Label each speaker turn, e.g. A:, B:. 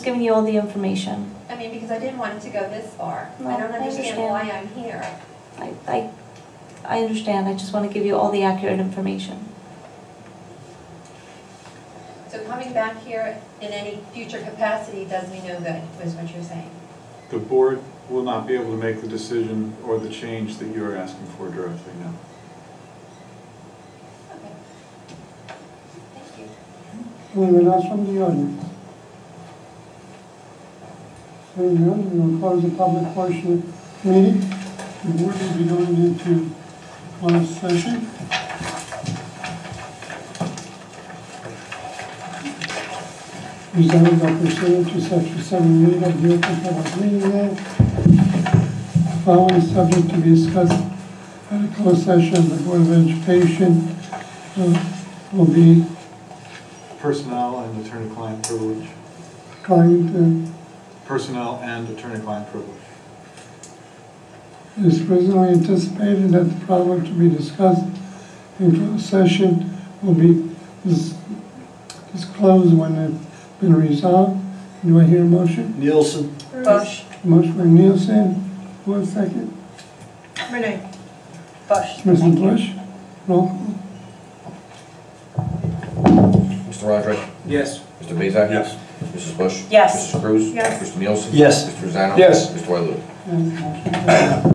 A: giving you all the information.
B: I mean, because I didn't want it to go this far.
A: No,
B: I don't
A: I understand.
B: understand why I'm here.
A: I, I, I understand, I just want to give you all the accurate information.
B: So coming back here in any future capacity does me no good, was what you're saying.
C: The board will not be able to make the decision or the change that you're asking for directly now.
B: Okay. Thank you.
D: Anyone else from the audience? Hearing none, we'll close the public portion of the meeting. The board will be going into closed session. Resolved by pursuant to section seven eight of the Open Public Meeting Act. Following subject to be discussed at a closed session of the Board of Education uh, will be
C: Personnel and attorney-client privilege.
D: trying to
C: Personnel and attorney-client privilege.
D: It is reasonably anticipated that the problem to be discussed in closed session will be dis- disclosed when it's been resolved. Do I hear a motion?
E: Nielsen,
F: Bush.
D: Motion by Nielsen, one second.
F: Renee. Bush.
D: Mrs. Bush, roll call.
G: Mr. Roderick?
E: Yes.
G: Mr. Bezak?
E: Yes.
G: Mrs. Bush?
F: Yes.
G: Mrs. Cruz?
F: Yes.
G: Mr. Nielsen?
E: Yes.
G: Mr. Zano?
E: Yes.
G: Mr. Wyloo?
D: Yes, motion carried.